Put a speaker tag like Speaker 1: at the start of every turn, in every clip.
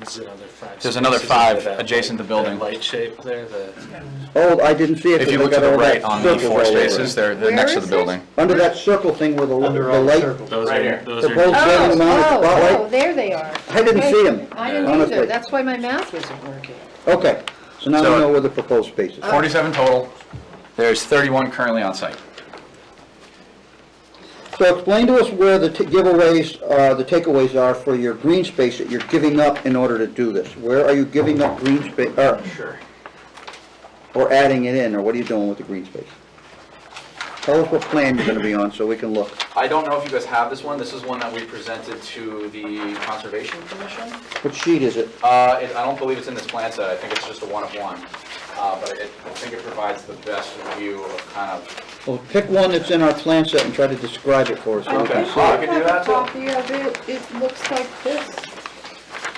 Speaker 1: This is another five.
Speaker 2: There's another
Speaker 1: spaces into
Speaker 2: five
Speaker 1: that
Speaker 2: adjacent to the
Speaker 1: light-
Speaker 2: building.
Speaker 1: that Light shape there, the,
Speaker 3: Oh, I didn't see it.
Speaker 2: If you
Speaker 3: 'cause I
Speaker 2: look to
Speaker 3: got
Speaker 2: the
Speaker 3: all that
Speaker 2: right on the
Speaker 3: circles all
Speaker 2: four
Speaker 3: over
Speaker 2: spaces,
Speaker 3: it.
Speaker 2: they're, they're
Speaker 4: Where
Speaker 2: next to
Speaker 4: is
Speaker 2: the
Speaker 4: it?
Speaker 2: building.
Speaker 3: Under that circle thing where the,
Speaker 5: Under
Speaker 3: the
Speaker 5: all
Speaker 3: light,
Speaker 5: circles.
Speaker 1: those
Speaker 6: Right
Speaker 1: are,
Speaker 6: here.
Speaker 1: those
Speaker 3: the
Speaker 1: are.
Speaker 3: bulbs getting on the
Speaker 4: Oh, Oh,
Speaker 3: spotlight.
Speaker 4: there they are.
Speaker 3: I didn't see 'em,
Speaker 4: I didn't
Speaker 3: honestly.
Speaker 4: either, that's why my math isn't working.
Speaker 3: Okay, so now we
Speaker 2: So-
Speaker 3: know where the proposed space is.
Speaker 2: Forty-seven total. There's thirty-one currently on site.
Speaker 3: So explain to us where the t- giveaways, uh, the takeaways are for your green space that you're giving up in order to do this. Where are you giving up green space, or,
Speaker 5: Sure.
Speaker 3: or adding it in, or what are you doing with the green space? Tell us what plan you're gonna be on so we can look.
Speaker 2: I don't know if you guys have this one. This is one that we presented to the Conservation Commission.
Speaker 3: What sheet is it?
Speaker 2: Uh, it- I don't believe it's in this plan set, I think it's just a one of one, Uh, but it- I think it provides the best view of kind of,
Speaker 3: Well, pick one that's in our plan set and try to describe it for us so we
Speaker 2: Okay.
Speaker 3: can
Speaker 2: Oh, I
Speaker 3: see.
Speaker 2: could do that, too.
Speaker 4: Copy of it, it looks like this.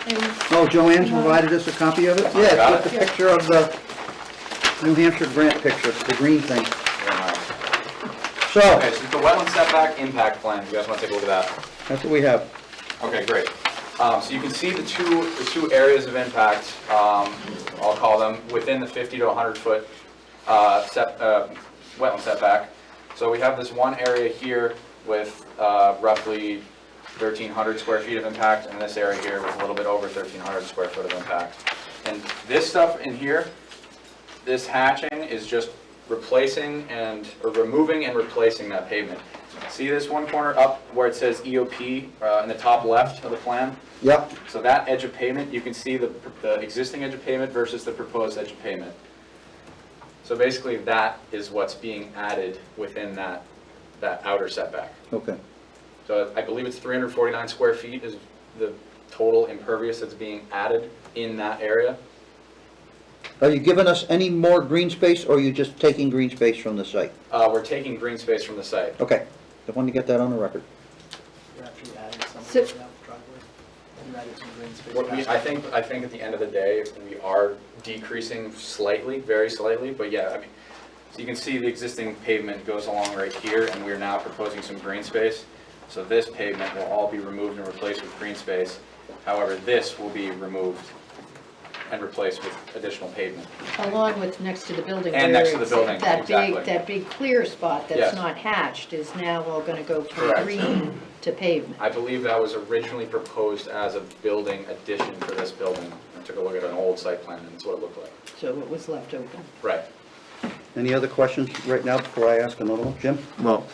Speaker 4: And
Speaker 3: it. Oh, Joanne's provided us a copy of it? Yeah,
Speaker 2: got
Speaker 3: it's got the picture of the New Hampshire grant picture, the green thing.
Speaker 2: you know.
Speaker 3: So,
Speaker 2: Okay, so the wetland setback impact plan, you guys want to take a look at that?
Speaker 3: that's what we have.
Speaker 2: Okay, great. Um, So you can see the two, the two areas of impact, um, I'll call them, within the 50 to 100-foot uh, wetland setback. So we have this one area here with uh, roughly 1,300 square feet of impact, and this area here with a little bit over 1,300 square foot of impact. And this stuff in here, this hatching is just replacing and, or removing and replacing that pavement. See this one corner up where it says EOP uh, in the top left of the plan?
Speaker 3: Yep,
Speaker 2: So that edge of pavement, you can see the, the existing edge of pavement versus the proposed edge of pavement. So basically, that is what's being added within that, that outer setback.
Speaker 3: okay.
Speaker 2: So I believe it's 349 square feet is the total impervious that's being added in that area.
Speaker 3: Are you giving us any more green space, or are you just taking green space from the site?
Speaker 2: Uh, We're taking green space from the site.
Speaker 3: Okay, I wanted to get that on the record.
Speaker 5: You're actually adding
Speaker 4: So-
Speaker 5: something to that driveway. You added some green space.
Speaker 2: What we, I think, I think at the end of the day, we are decreasing slightly, very slightly, but yeah, I mean, so you can see the existing pavement goes along right here, and we're now proposing some green space. So this pavement will all be removed and replaced with green space. However, this will be removed and replaced with additional pavement.
Speaker 4: Along with next to the building.
Speaker 2: And next to the
Speaker 4: where it's-
Speaker 2: building,
Speaker 4: That
Speaker 2: exactly.
Speaker 4: big, that big clear spot
Speaker 2: Yes.
Speaker 4: that's not hatched is now all gonna go from
Speaker 2: Correct.
Speaker 4: green to pavement.
Speaker 2: I believe that was originally proposed as a building addition for this building. I took a look at an old site plan, and it's what it looked like.
Speaker 4: So it was left open.
Speaker 2: Right.
Speaker 3: Any other questions right now before I ask another one? Jim?
Speaker 7: Well,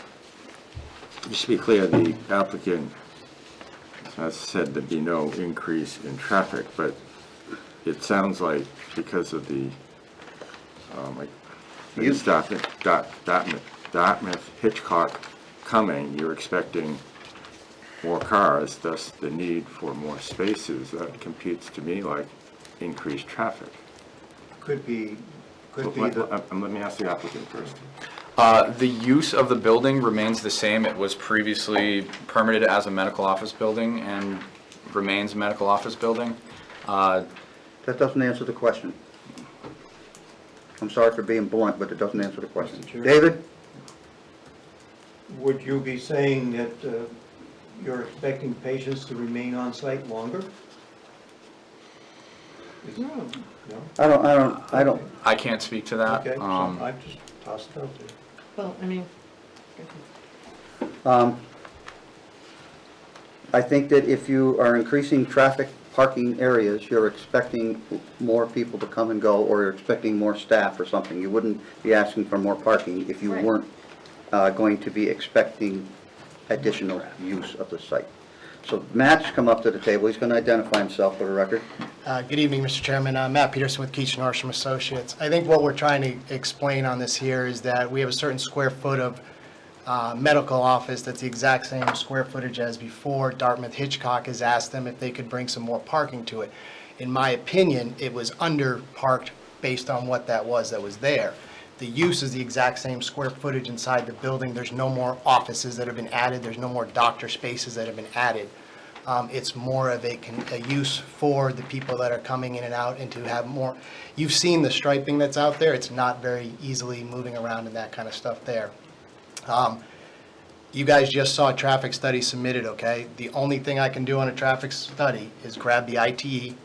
Speaker 7: just to be clear, the applicant has said there'd be no increase in traffic, but it sounds like because of the, um, like,
Speaker 3: You-
Speaker 7: the Dartmouth, Dart- Dartmouth, Dartmouth Hitchcock coming, you're expecting more cars, thus the need for more spaces. That computes to me like increased traffic.
Speaker 5: Could be, could
Speaker 7: But
Speaker 5: be
Speaker 7: Let
Speaker 5: the.
Speaker 7: let- um, let me ask the applicant first.
Speaker 2: Uh, The use of the building remains the same. It was previously permitted as a medical office building and remains a medical office building. Uh,
Speaker 3: That doesn't answer the question. I'm sorry for being blunt, but it doesn't answer the question.
Speaker 5: Mr. Chair?
Speaker 3: David?
Speaker 5: Would you be saying that uh, you're expecting patients to remain on site longer? Is- No?
Speaker 4: Hmm,
Speaker 3: I don't, I don't, I don't,
Speaker 2: I can't speak to that.
Speaker 5: Okay, so
Speaker 2: Um,
Speaker 5: I just tossed it out there.
Speaker 4: Well, I mean,
Speaker 3: um, I think that if you are increasing traffic parking areas, you're expecting more people to come and go, or you're expecting more staff or something. You wouldn't be asking for more parking if you
Speaker 4: Right.
Speaker 3: weren't, uh, going to be expecting additional use of the site. So Matt's come up to the table, he's gonna identify himself for the record.
Speaker 8: Uh, Good evening, Mr. Chairman. Uh, Matt Peterson with Keach Norsham Associates. I think what we're trying to explain on this here is that we have a certain square foot of uh, medical office that's the exact same square footage as before. Dartmouth Hitchcock has asked them if they could bring some more parking to it. In my opinion, it was under-parked based on what that was that was there. The use is the exact same square footage inside the building. There's no more offices that have been added. There's no more doctor spaces that have been added. Um, It's more of a, con- a use for the people that are coming in and out and to have more, you've seen the striping that's out there. It's not very easily moving around and that kind of stuff there. Um, You guys just saw a traffic study submitted, okay? The only thing I E. can do on a traffic study is grab the ITE,